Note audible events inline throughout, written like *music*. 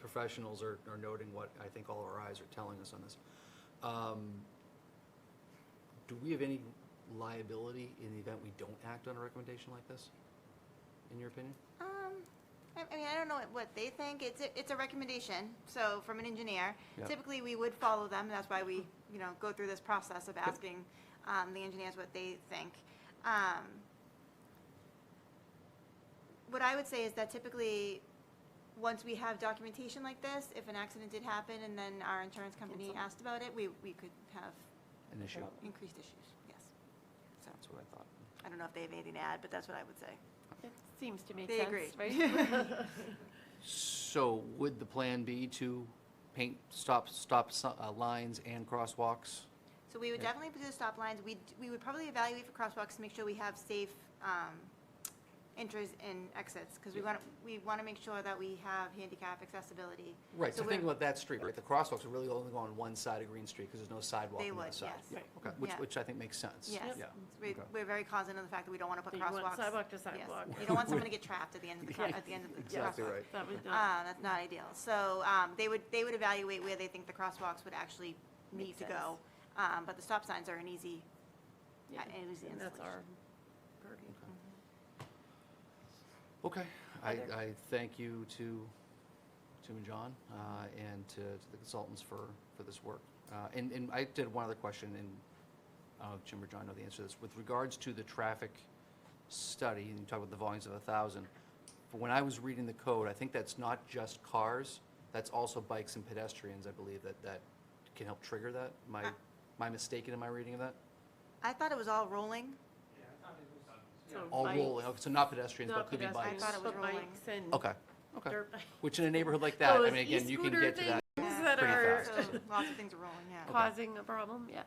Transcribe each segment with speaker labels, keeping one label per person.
Speaker 1: professionals are, are noting what I think all our eyes are telling us on this. Um, Do we have any liability in the event we don't act on a recommendation like this, in your opinion?
Speaker 2: Um, I, I mean, I don't know what- what they think. It's, a- it's a recommendation, so from an engineer.
Speaker 1: Yeah.
Speaker 2: Typically, we would follow them, and that's why we, you know, go through this process of asking, um, the engineers what they think. Um, what I would say is that typically, once we have documentation like this, if an accident did happen and then our insurance company asked about it, we, we could have
Speaker 1: An issue?
Speaker 2: increased issues, yes. So,
Speaker 1: That's what I thought.
Speaker 2: I don't know if they have anything to add, but that's what I would say.
Speaker 3: It seems to make
Speaker 2: They
Speaker 3: sense,
Speaker 2: agree.
Speaker 3: right?
Speaker 2: *laughs*
Speaker 1: So would the plan be to paint stop, stop si- uh, lines and crosswalks?
Speaker 2: So we would
Speaker 1: Yeah.
Speaker 2: definitely do the stop lines. We, we would probably evaluate for crosswalks to make sure we have safe um, entries and exits, because we want, we want to make sure that we have handicap accessibility.
Speaker 1: Right, so
Speaker 2: we're-
Speaker 1: think about that street, right? The crosswalks are really only go on one side of Green Street because there's no sidewalk
Speaker 2: They
Speaker 1: on the other
Speaker 2: would,
Speaker 1: side.
Speaker 2: yes.
Speaker 1: Yeah,
Speaker 3: Right.
Speaker 1: Okay, which,
Speaker 2: Yeah.
Speaker 1: which I think makes sense.
Speaker 2: Yes.
Speaker 1: Yeah.
Speaker 2: We-
Speaker 1: okay.
Speaker 2: We're very cognizant of the fact that we don't want to put
Speaker 3: That you want
Speaker 2: crosswalks.
Speaker 3: sidewalk to
Speaker 2: Yes.
Speaker 3: sidewalk.
Speaker 2: You don't
Speaker 1: *laughs*
Speaker 2: want someone to get trapped at the end of the, cro-
Speaker 3: Yeah.
Speaker 2: at the end of the crosswalk.
Speaker 1: Exactly right.
Speaker 3: That would not,
Speaker 2: Uh, That's not ideal. So um, they would, they would evaluate where they think the crosswalks would actually need
Speaker 3: Makes
Speaker 2: to go. Um, But the stop signs are an easy,
Speaker 3: yeah,
Speaker 2: it was the
Speaker 3: and that's our
Speaker 2: installation.
Speaker 3: purview.
Speaker 1: Okay, I,
Speaker 3: Other-
Speaker 1: I thank you to, to John uh, and to to the consultants for, for this work. Uh, And, and I did one other question, and I don't know if Jim or John know the answer to this. With regards to the traffic study, and you talk about the volumes of a 1,000, but when I was reading the code, I think that's not just cars, that's also bikes and pedestrians, I believe, that, that can help trigger that. My,
Speaker 2: Ah.
Speaker 1: my mistaken in my reading of that?
Speaker 2: I thought it was all rolling.
Speaker 3: So
Speaker 1: All
Speaker 3: bikes,
Speaker 1: rolling, okay, so not pedestrians,
Speaker 3: not
Speaker 1: but could be bikes.
Speaker 3: pedestrians,
Speaker 2: I thought it was
Speaker 3: but
Speaker 2: rolling.
Speaker 3: bikes and
Speaker 1: Okay, okay.
Speaker 3: dirt bikes.
Speaker 1: Which in a neighborhood like that, I
Speaker 3: Oh, Those
Speaker 1: mean, again, you can
Speaker 3: e-scooter
Speaker 1: get to that.
Speaker 3: things that
Speaker 1: pretty
Speaker 3: are
Speaker 1: fast.
Speaker 3: *laughs*
Speaker 2: So lots of things are rolling, yeah.
Speaker 3: causing a problem, yeah.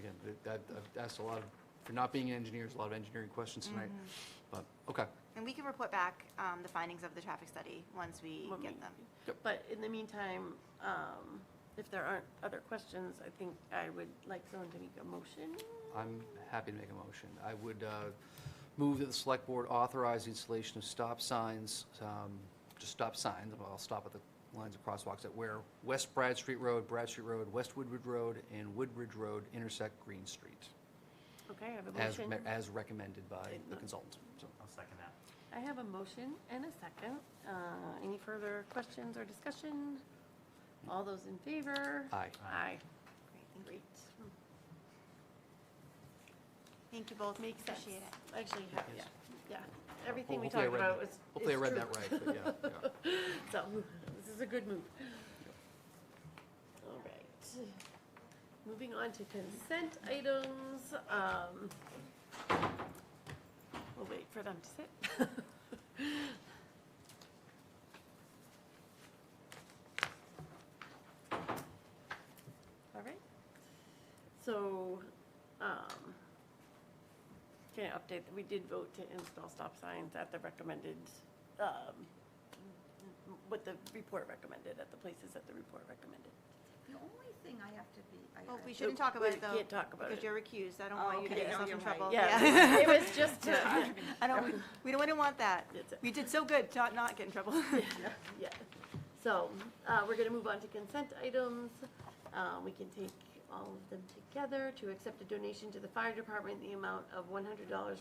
Speaker 1: Again, th- that, I've asked a lot of, for not being an engineer, there's a lot of engineering questions tonight.
Speaker 3: Mm-hmm.
Speaker 1: But, okay,
Speaker 2: And we can report back um, the findings of the traffic study once we
Speaker 3: when
Speaker 2: get
Speaker 3: we-
Speaker 2: them.
Speaker 3: But in the meantime, um, if there aren't other questions, I think I would like someone to make a motion.
Speaker 1: I'm happy to make a motion. I would uh, move that the select board authorize the installation of stop signs, um, just stop signs, I'll stop at the lines of crosswalks that where West Brad Street Road, Brad Street Road, West Woodward Road, and Woodridge Road intersect Green Street,
Speaker 3: Okay, I have a
Speaker 1: as,
Speaker 3: motion.
Speaker 1: me- as recommended by
Speaker 3: Okay.
Speaker 1: the consultant. So,
Speaker 4: I'll second that.
Speaker 3: I have a motion and a second. Uh, Any further questions or discussion? All those in favor?
Speaker 1: Aye.
Speaker 3: Aye.
Speaker 2: Great, thank you.
Speaker 3: Great.
Speaker 2: Thank you both.
Speaker 3: Makes sense.
Speaker 2: Appreciate it.
Speaker 3: Actually, yeah, yeah, yeah. Everything we
Speaker 1: Hopefully I
Speaker 3: talked
Speaker 1: read-
Speaker 3: about was.
Speaker 1: Hopefully I
Speaker 3: is
Speaker 1: read
Speaker 3: true.
Speaker 1: that right, but yeah, yeah.
Speaker 3: *laughs* So, this is a good move. All right. Moving on to consent items. um, We'll wait for them to sit. *laughs* All right. So, um, can I update that we did vote to install stop signs at the recommended, um, what the report recommended, at the places that the report recommended.
Speaker 5: The only thing I have to be, I,
Speaker 2: Well, we
Speaker 5: I-
Speaker 2: shouldn't talk about
Speaker 3: We
Speaker 2: it, though.
Speaker 3: can't talk about
Speaker 2: Because
Speaker 3: it.
Speaker 2: you're recused. I don't
Speaker 5: Oh,
Speaker 2: want you to
Speaker 5: okay.
Speaker 2: get
Speaker 5: Yeah,
Speaker 2: yourself
Speaker 5: you're
Speaker 2: in
Speaker 5: right.
Speaker 2: trouble. *laughs*
Speaker 3: Yeah, it was just,
Speaker 5: *laughs*
Speaker 3: to-
Speaker 2: uh, I *laughs* don't, we don't, we don't want that.
Speaker 3: That's it.
Speaker 2: We did so good to not get in *laughs* trouble.
Speaker 3: yeah. So uh, we're going to move on to consent items. Uh, We can take all of them together to accept a donation to the fire department, in the amount of $100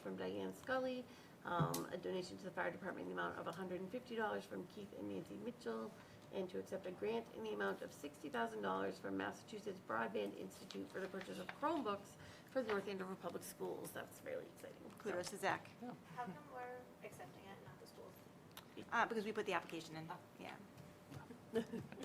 Speaker 3: from Diane Scully, um, a donation to the fire department, in the amount of $150 from Keith and Nancy Mitchell, and to accept a grant in the amount of $60,000 from Massachusetts Broadband Institute for the purchase of Chromebooks for the North Andover Public Schools. That's really exciting. So-
Speaker 2: Kudos to Zach.
Speaker 5: how come we're accepting it, not the schools?
Speaker 2: Uh, Because we put the application in, yeah.
Speaker 3: *laughs*
Speaker 1: *laughs*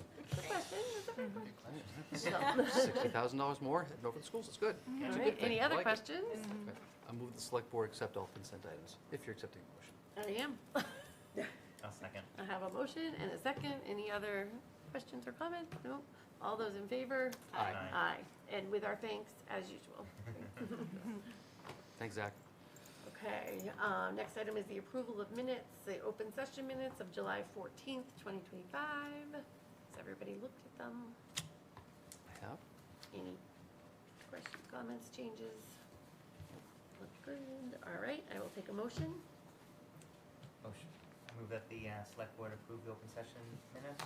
Speaker 1: $60,000 more, heading over to the schools, it's good.
Speaker 3: All
Speaker 1: It's a
Speaker 3: right,
Speaker 1: good thing.
Speaker 3: any
Speaker 1: I
Speaker 3: other
Speaker 1: like it.
Speaker 3: questions?
Speaker 1: Okay. I move the select board accept all consent items, if you're accepting the motion.
Speaker 3: I am. *laughs*
Speaker 4: I'll second.
Speaker 3: I have a motion and a second. Any other questions or comments? No? All those in favor?
Speaker 1: Aye.
Speaker 3: Aye. And with our thanks, as usual. *laughs*
Speaker 1: Thanks, Zach.
Speaker 3: Okay, uh, next item is the approval of minutes, the open session minutes of July 14th, 2025. Has everybody looked at them?
Speaker 1: I have.
Speaker 3: Any questions, comments, changes? Look good. All right, I will take a motion.
Speaker 4: Motion. I move that the uh, select board approve the open session minutes